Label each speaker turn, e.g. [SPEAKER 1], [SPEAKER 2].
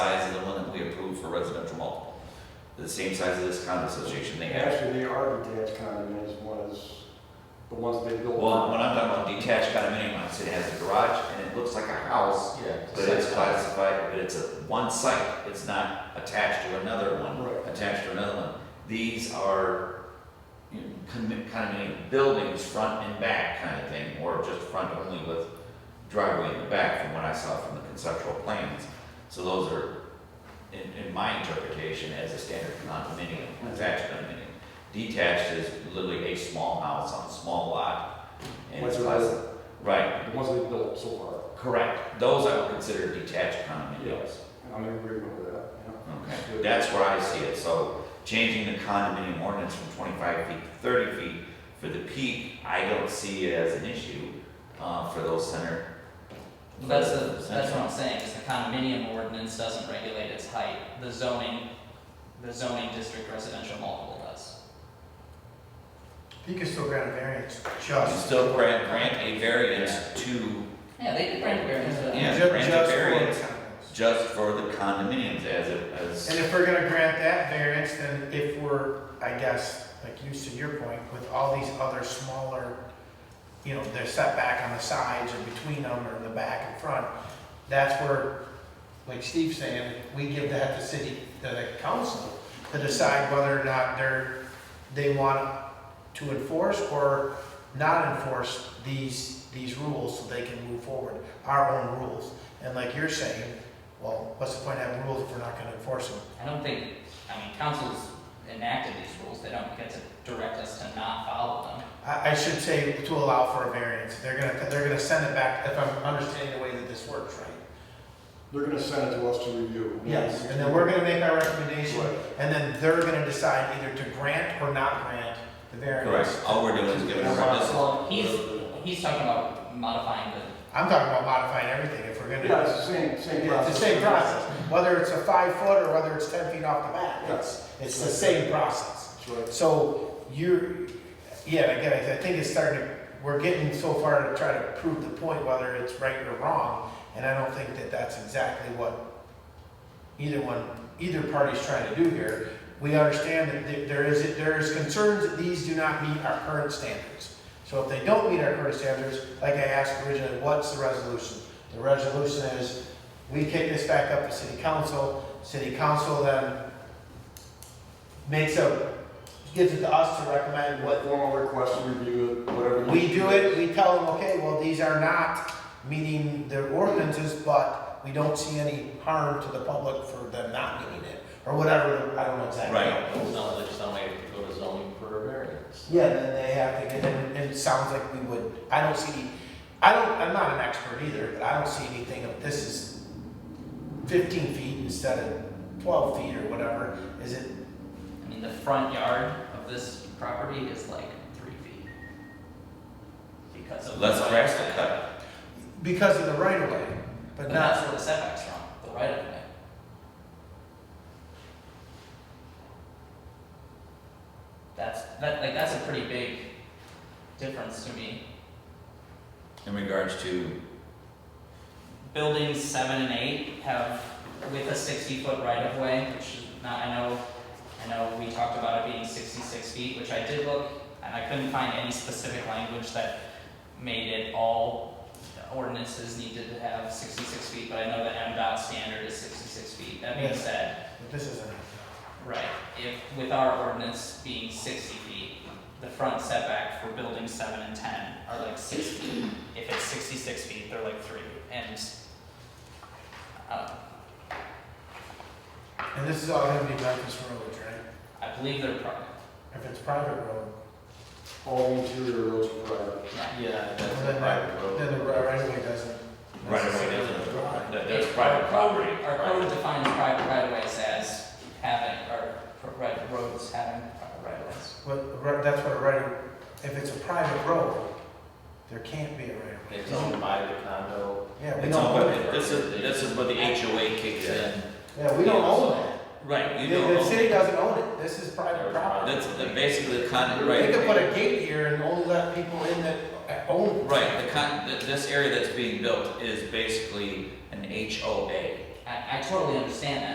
[SPEAKER 1] the same size as this condo association they have.
[SPEAKER 2] Actually, they are detached condominiums, one is the ones they built.
[SPEAKER 1] Well, when I'm talking about detached condominium, I said it has a garage and it looks like a house,
[SPEAKER 3] Yeah.
[SPEAKER 1] but it's classified, but it's a one site, it's not attached to another one,
[SPEAKER 2] Right.
[SPEAKER 1] attached to another one. These are you know, con- condominium buildings, front and back kind of thing, or just front only with driveway in the back from what I saw from the conceptual plans. So those are, in, in my interpretation, as a standard condominium, attached condominium. Detached is literally a small house on a small lot. and it's
[SPEAKER 2] What's it
[SPEAKER 1] class-
[SPEAKER 2] called?
[SPEAKER 1] Right,
[SPEAKER 2] The ones they built so far,
[SPEAKER 1] correct. Those I would consider detached condominiums.
[SPEAKER 2] I'm in agreement with that, yeah.
[SPEAKER 1] Okay, that's where I see it, so changing the condominium ordinance from twenty-five feet to thirty feet for the peak, I don't see it as an issue, uh, for those center.
[SPEAKER 4] Well, That's, the-
[SPEAKER 1] for
[SPEAKER 4] that's what
[SPEAKER 1] central.
[SPEAKER 4] I'm saying, is the condominium ordinance doesn't regulate its height, the zoning, the zoning district residential multiple does.
[SPEAKER 5] You can still grant a variance,
[SPEAKER 1] You
[SPEAKER 5] just.
[SPEAKER 1] Still grant, grant a variance to,
[SPEAKER 4] Yeah, they did grant a variance for that.
[SPEAKER 1] Yeah,
[SPEAKER 5] Ju-
[SPEAKER 1] grant a
[SPEAKER 5] just for
[SPEAKER 1] variance.
[SPEAKER 5] the condos.
[SPEAKER 1] just for the condominiums as a,
[SPEAKER 5] And
[SPEAKER 1] as,
[SPEAKER 5] if we're gonna grant that variance, then if we're, I guess, like you, to your point, with all these other smaller, you know, they're set back on the sides or between them or in the back and front, that's where, like Steve's saying, we give that to city, to the council to decide whether or not they're, they want to enforce or not enforce these, these rules so they can move forward, our own rules. And like you're saying, well, what's the point of having rules if we're not gonna enforce them?
[SPEAKER 4] I don't think, I mean, council's enacted these rules, they don't get to direct us to not follow them.
[SPEAKER 5] I, I should say to allow for a variance. They're gonna, they're gonna send it back, if I'm understanding the way that this works, right?
[SPEAKER 2] They're gonna send it to us to review.
[SPEAKER 5] And then we're gonna make our recommendation,
[SPEAKER 2] Right.
[SPEAKER 5] and then they're gonna decide either to grant or not grant the variance.
[SPEAKER 1] correct, all we're doing is giving a this,
[SPEAKER 4] Well, he's, he's talking about modifying the,
[SPEAKER 5] I'm talking about modifying everything if we're
[SPEAKER 2] Yeah, it's
[SPEAKER 5] gonna,
[SPEAKER 2] the same, same
[SPEAKER 5] it's the
[SPEAKER 2] process.
[SPEAKER 5] same process. Whether it's a five foot or whether it's ten feet off the bat,
[SPEAKER 2] Yeah.
[SPEAKER 5] it's, it's the same process.
[SPEAKER 2] That's right.
[SPEAKER 5] So you're, yeah, and again, I- I think it's starting to, we're getting so far to try to prove the point whether it's right or wrong. And I don't think that that's exactly what either one, either party's trying to do here. We understand that th- there is, there is concerns that these do not meet our current standards. So if they don't meet our current standards, like I asked originally, what's the resolution? The resolution is, we kick this back up to city council, city council then makes a gives it to us to recommend what,
[SPEAKER 2] Formal request to review it, whatever. you-
[SPEAKER 5] we do it, we tell them, okay, well, these are not meeting their ordinances, but we don't see any harm to the public for them not meeting it, or whatever, I don't know exactly.
[SPEAKER 1] Right.
[SPEAKER 3] No, there's no way to go to zoning for a variance.
[SPEAKER 5] Yeah, then they have to get, and and it sounds like we would, I don't see, I don't, I'm not an expert either, but I don't see anything of this is fifteen feet instead of twelve feet or whatever, is it,
[SPEAKER 4] I mean, the front yard of this property is like three feet. Because of. the
[SPEAKER 1] let's
[SPEAKER 4] way-
[SPEAKER 1] grasp the cut.
[SPEAKER 5] because of the right of way, but
[SPEAKER 4] But
[SPEAKER 5] not
[SPEAKER 4] that's where the setback's from, the right of way. That's, that, like, that's a pretty big difference to me.
[SPEAKER 1] in regards to
[SPEAKER 4] Buildings seven and eight have, with a sixty-foot right-of-way, which is not, I know, I know we talked about it being sixty-six feet, which I did look, and I couldn't find any specific language that made it all ordinances needed to have sixty-six feet, but I know the MDOT standard is sixty-six feet. That being
[SPEAKER 5] Yes.
[SPEAKER 4] said,
[SPEAKER 5] But this isn't.
[SPEAKER 4] Right, if, with our ordinance being sixty feet, the front setback for buildings seven and ten are like six feet. If it's sixty-six feet, they're like three, and, uh,
[SPEAKER 5] And this is all gonna be Memphis roads, right?
[SPEAKER 4] I believe they're private,
[SPEAKER 5] If it's private road,
[SPEAKER 2] All interior roads are private.
[SPEAKER 4] yeah.
[SPEAKER 3] Yeah, that's
[SPEAKER 5] Well, then
[SPEAKER 3] a private
[SPEAKER 5] then the
[SPEAKER 3] road.
[SPEAKER 5] right of way doesn't.
[SPEAKER 1] right of way,
[SPEAKER 5] Right.
[SPEAKER 1] that's, that- that's private property.
[SPEAKER 4] Our
[SPEAKER 1] private.
[SPEAKER 4] code defines private right of ways as having, or, pro- right, roads having private right of ways.
[SPEAKER 5] But the right- that's what a right, of- if it's a private road, there can't be a right of way.
[SPEAKER 3] It's owned by the condo.
[SPEAKER 5] Yeah, we
[SPEAKER 1] It's
[SPEAKER 5] don't
[SPEAKER 1] all,
[SPEAKER 5] own it.
[SPEAKER 1] but this is, this is where the HOA kicks in.
[SPEAKER 5] Yeah, we don't own that.
[SPEAKER 1] Right,
[SPEAKER 5] The,
[SPEAKER 1] you don't
[SPEAKER 5] the
[SPEAKER 1] own
[SPEAKER 5] city doesn't own it. This is private property.
[SPEAKER 1] That's the- basically the con,
[SPEAKER 5] They could put
[SPEAKER 1] right,
[SPEAKER 5] a gate here and only let people in that own. it.
[SPEAKER 1] right, the con, th- this area that's being built is basically an HOA.
[SPEAKER 4] I, I totally understand that,